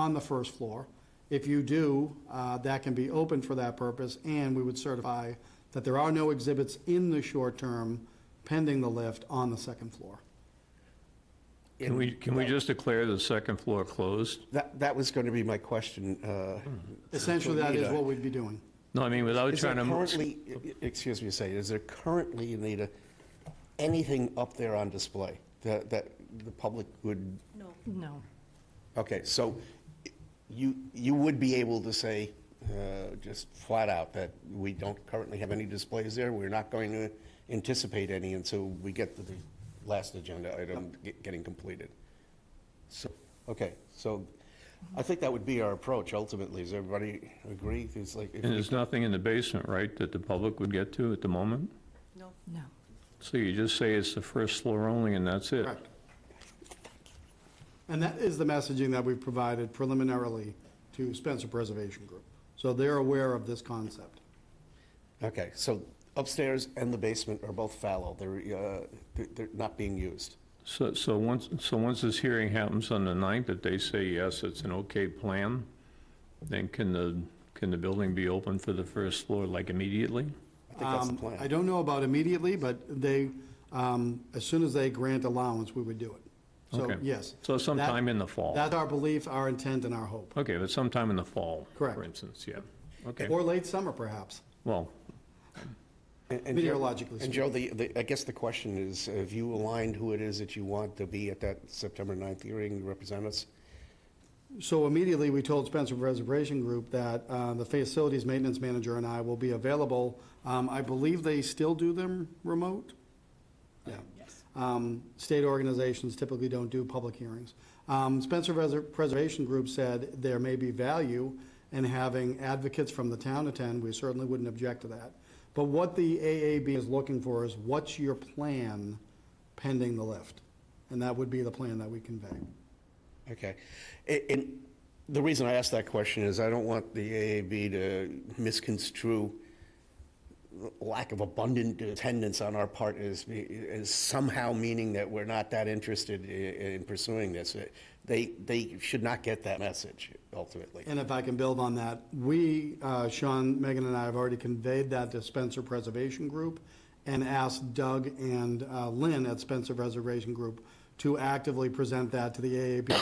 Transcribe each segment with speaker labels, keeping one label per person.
Speaker 1: on the first floor. If you do, uh, that can be open for that purpose, and we would certify that there are no exhibits in the short term pending the lift on the second floor.
Speaker 2: Can we, can we just declare the second floor closed?
Speaker 3: That, that was going to be my question. uh,
Speaker 1: Essentially, that is
Speaker 3: Anita.
Speaker 1: what we'd be doing.
Speaker 2: No, Hmm. I mean, without
Speaker 3: Is there
Speaker 2: trying to. mo-
Speaker 3: currently, e- excuse me a second, is there currently, Anita, anything up there on display that, that the public would,
Speaker 4: No.
Speaker 3: okay, so you, you would be able to say, uh, just flat out, that we don't currently have any displays there? We're not going to anticipate any until we get to the last agenda item ge- getting completed? So, okay, so I think that would be our approach ultimately. Does everybody agree? It's like, if we-
Speaker 2: And there's nothing in the basement, right, that the public would get to at the moment?
Speaker 4: No.
Speaker 2: So you just say it's the first floor only and that's it?
Speaker 1: Correct. And that is the messaging that we've provided preliminarily to Spencer Preservation Group. So they're aware of this concept.
Speaker 3: Okay, so upstairs and the basement are both fallow. They're, uh, they're- they're not being used.
Speaker 2: So, so once, so once this hearing happens on the 9th, if they say, yes, it's an okay plan, then can the, can the building be open for the first floor, like immediately?
Speaker 3: I think that's the
Speaker 1: Um, I
Speaker 3: plan.
Speaker 1: don't know about immediately, but they, um, as soon as they grant allowance, we would do it. So,
Speaker 2: Okay.
Speaker 1: yes.
Speaker 2: So sometime in the fall?
Speaker 1: That's our belief, our intent, and our hope.
Speaker 2: Okay, but sometime in the fall?
Speaker 1: Correct.
Speaker 2: For instance, yeah. Okay,
Speaker 1: Or late summer, perhaps.
Speaker 2: well,
Speaker 3: And- and Joe-
Speaker 1: meteorologically
Speaker 3: And Joe, the, the- I guess the question is, have you aligned who it is that you want to be at that September 9th hearing to represent us?
Speaker 1: So immediately, we told Spencer Preservation Group that uh, the facilities maintenance manager and I will be available. Um, I believe they still do them remote? Yeah. Um, State organizations typically don't do public hearings. Um, Spencer Preser- Preservation Group said there may be value in having advocates from the town attend. We certainly wouldn't object to that. But what the AAB is looking for is, what's your plan pending the lift? And that would be the plan that we convey.
Speaker 3: Okay. A- And the reason I ask that question is I don't want the AAB to misconstrue lack of abundant attendance on our part as, as somehow meaning that we're not that interested i- in pursuing this. They, they should not get that message ultimately.
Speaker 1: And if I can build on that, we, uh, Sean, Megan, and I have already conveyed that to Spencer Preservation Group and asked Doug and uh, Lynn at Spencer Preservation Group to actively present that to the AAB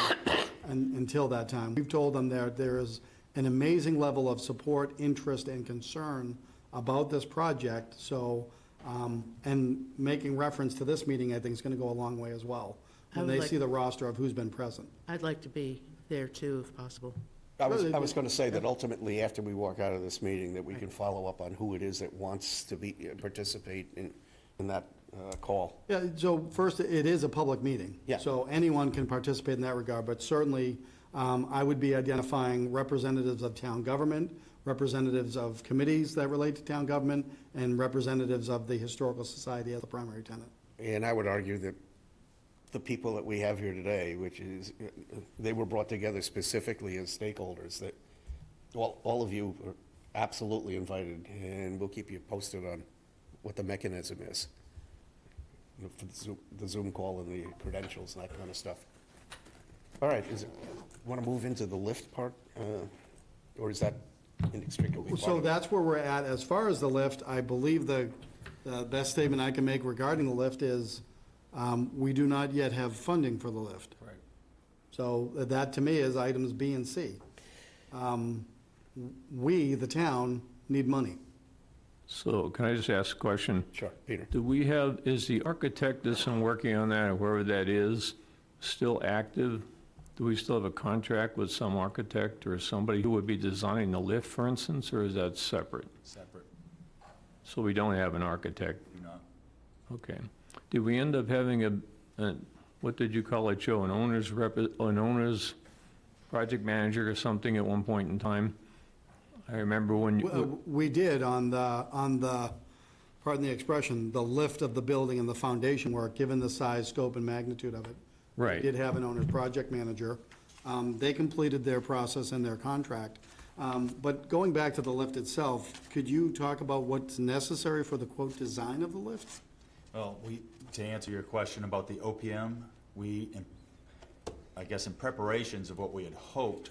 Speaker 1: un- until that time. We've told them that there is an amazing level of support, interest, and concern about this project, so, um, and making reference to this meeting, I think, is going to go a long way as well,
Speaker 5: I
Speaker 1: when
Speaker 5: would
Speaker 1: they
Speaker 5: like-
Speaker 1: see the roster of who's been present.
Speaker 5: I'd like to be there too, if possible.
Speaker 3: I was, I was going to say that ultimately, after we walk out of this meeting, that we can follow up on who it is that wants to be, uh, participate in, in that uh, call.
Speaker 1: Yeah, so first, it is a public meeting.
Speaker 3: Yeah.
Speaker 1: So anyone can participate in that regard, but certainly, um, I would be identifying representatives of town government, representatives of committees that relate to town government, and representatives of the Historical Society as the primary tenant.
Speaker 3: And I would argue that the people that we have here today, which is, uh, they were brought together specifically as stakeholders, that, well, all of you are absolutely invited, and we'll keep you posted on what the mechanism is. You know, For the Zoom- the Zoom call and the credentials and that kind of stuff. All right, is it, want to move into the lift part? uh, Or is that inextricably part
Speaker 1: So
Speaker 3: of it?
Speaker 1: that's where we're at. As far as the lift, I believe the, the best statement I can make regarding the lift is, um, we do not yet have funding for the lift. Right. So that to me is items B and C. Um, We, the town, need money.
Speaker 2: so can I just ask a question?
Speaker 3: Sure, Peter.
Speaker 2: Do we have, is the architect that's been working on that, or whoever that is, still active? Do we still have a contract with some architect or somebody who would be designing the lift, for instance, or is that separate?
Speaker 6: Separate,
Speaker 2: So we don't have an architect,
Speaker 6: do not.
Speaker 2: okay. Did we end up having a, a- what did you call it, Joe, an owner's rep, an owner's project manager or something at one point in time? I remember when,
Speaker 1: We- uh,
Speaker 2: you-
Speaker 1: We did on the, on the, pardon the expression, the lift of the building and the foundation work, given the size, scope, and magnitude of it. We
Speaker 2: Right.
Speaker 1: Did have an owner's project manager. Um, They completed their process and their contract. Um, But going back to the lift itself, could you talk about what's necessary for the quote, "design" of the lift?
Speaker 6: Well, we, to answer your question about the OPM, we, in- I guess in preparations of what we had hoped